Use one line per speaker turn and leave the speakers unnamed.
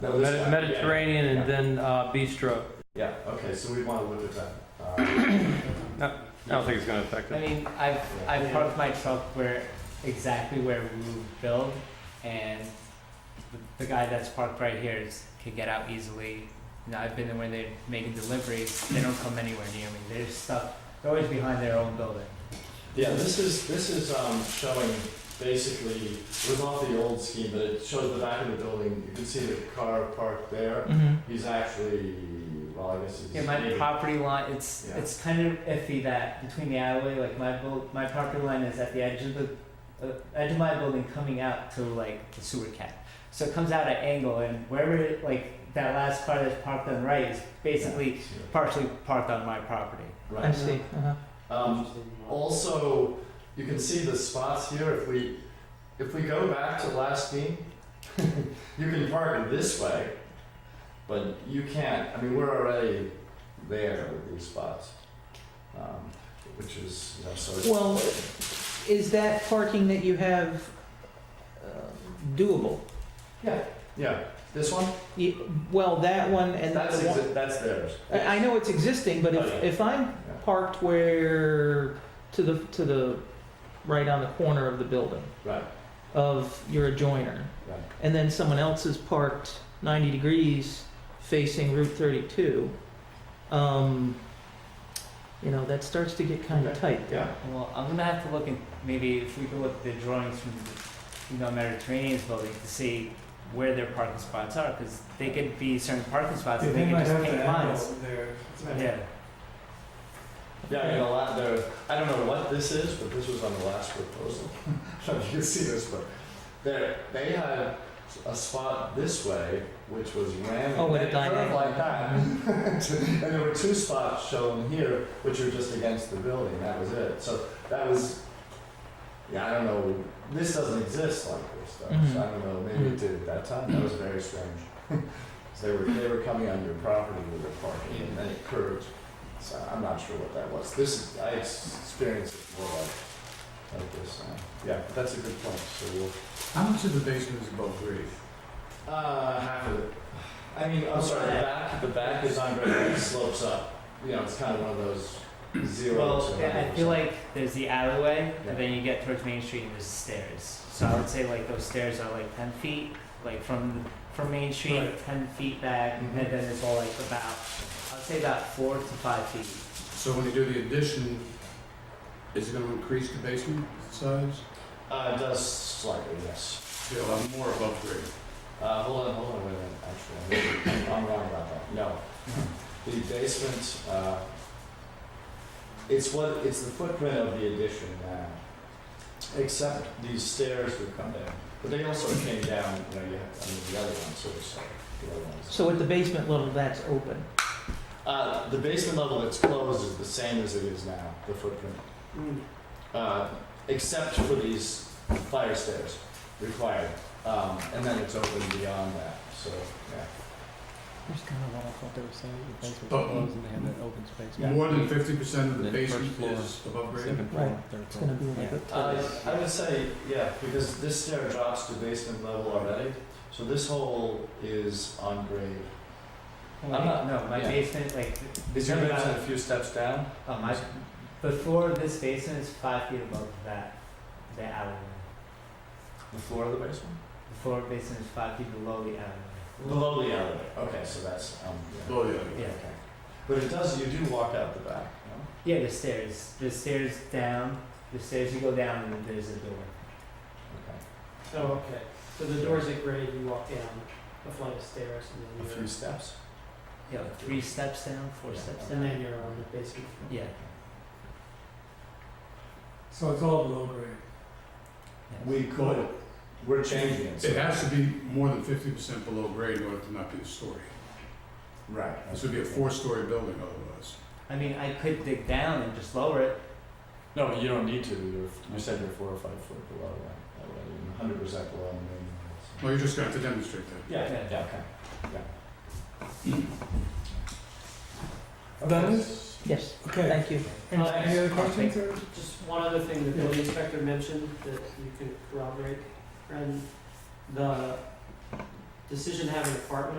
No, this
Med-
guy.
Mediterranean
Yeah.
and then uh, bistro.
Yeah, okay, so we want to look at that. Uh,
I don't think it's going to affect
I
it.
mean, I've, I've parked my truck where, exactly where we build, and the- the guy that's parked right here is, can get out easily. You know, I've been there when they're making deliveries, they don't come anywhere near me, they're stuck, they're always behind their own building.
Yeah, this is, this is um, showing basically, it was off the old scheme, but it shows the back of the building. You can see the car parked there. He's actually, well, I guess he's.
Yeah, my property line, it's,
Yeah.
it's kind of iffy that between the alleyway, like my bu- my property line is at the edge of the, uh, edge of my building coming out to like the sewer cap. So it comes out at angle and wherever, it- like that last car that's parked on the right is basically partially parked on my property.
Right.
see. uh
Um, Also, you can see the spots here, if we, if we go back to last meeting, you can park it this way, but you can't, I mean, we're already there with these spots. um, Which is, you know, so it's.
Well, is that parking that you have uh, doable?
Yeah, this one,
Y- Well, that one and
that's,
the one,
exi- that's theirs.
I I know it's existing, but
Oh,
if,
yeah.
if I'm
Yeah.
parked where, to the, to the, right on the corner of the building
Right,
of your adjoiner,
right,
and then someone else is parked 90 degrees facing Route 32, um, you know, that starts to get kind of
Okay.
tight.
yeah,
Well, I'm gonna have to look in, maybe if we could look at the drawings from, the, you know, Mediterranean's building to see where their parking spots are, cause they could be certain parking spots and they could just paint lines. Yeah.
yeah, I mean, a lot there, I don't know what this is, but this was on the last proposal. I don't know if you can see this, but there, they had a spot this way, which was ramming.
Oh, with a
kind of
diagonal.
Like that. And there were two spots shown here, which were just against the building, that was it. So that was, yeah, I don't know, this doesn't exist like this though,
Mm-hmm.
so I don't know,
Hmm.
maybe it did at that time, that was very strange. 'Cause they were, they were coming on your property with their parking and then it curved, so I'm not sure what that was. This, is- I ex- experienced it more like, like this, uh, yeah, but that's a good point, so we'll.
How much of the basement is above grade?
Uh, half of it. I mean, I'm sorry, the back, the back is on grid, it slopes up. You know, it's kind of one of those zero
Well,
to
yeah, I feel
100%.
like there's the alleyway,
Yeah.
and then you get towards Main Street and there's stairs. So I would say like those stairs are like ten feet, like from, from Main Street,
Right.
ten feet back, and
Mhm.
then it's all like about, I'd say about four to five feet.
So when you do the addition, is it gonna increase the basement size?
Uh, it does slightly, yes.
You'll have more above grade.
Uh, hold on, hold on, wait a minute, actually, I'm- I'm wrong about that, no. The basement, uh, it's what, it's the footprint of the addition now. Except these stairs would come down, but they also came down, you know, you have, I mean, the other one sort of, so, the other one's.
So at the basement level, that's open.
Uh, the basement level that's closed is the same as it is now, the footprint, uh, except for these fire stairs required. Um, and then it's open beyond that, so, yeah.
There's kind of what I thought they were saying, the basement
Uh-oh. closed
and they had that open space.
More than fifty percent of the
Then first
basement
floor,
is above grade?
Second floor,
Right.
third
It's gonna
floor.
be like a
Uh,
terrace.
I would say, yeah, because this stair drops to basement level already, so this hole is on grade.
I'm
I'm not-
no, my
yeah.
basement, like,
Is your
Yeah.
basement a few steps down?
uh, my, the floor of this basement is five feet above that, the alleyway.
The floor of the basement?
The floor of basement is five feet below the alleyway.
Below the elevator, okay, so that's, um, yeah.
Oh, yeah.
Yeah.
Okay. But it does, you do walk out the back, no?
Yeah, the stairs, the stairs down, the stairs you go down and there's a door.
Okay.
Oh, okay. So the door's
at grade, you walk down a flight of stairs,
A few steps?
Yeah, like three steps down, four
Yeah.
steps
And
down.
you're on the basement floor.
Yeah.
So it's all below grade.
yeah.
We could, we're changing it. so-
It has to be more than fifty percent below grade in order to not be a story.
Right.
This would be a four-story building otherwise.
I mean, I could dig down and just lower it.
No, but you don't need to, you're, you said you're four or five foot below that, already, hundred percent below the mean. so-
Well, you're just gonna have to demonstrate that.
Yeah, yeah,
Yeah.
yeah, okay, yeah.
Done
Okay.
Yes,
Okay,
thank you.
any any other
Thanks.
questions or?
Just one other thing that the inspector mentioned that you could corroborate, and the
decision to have an apartment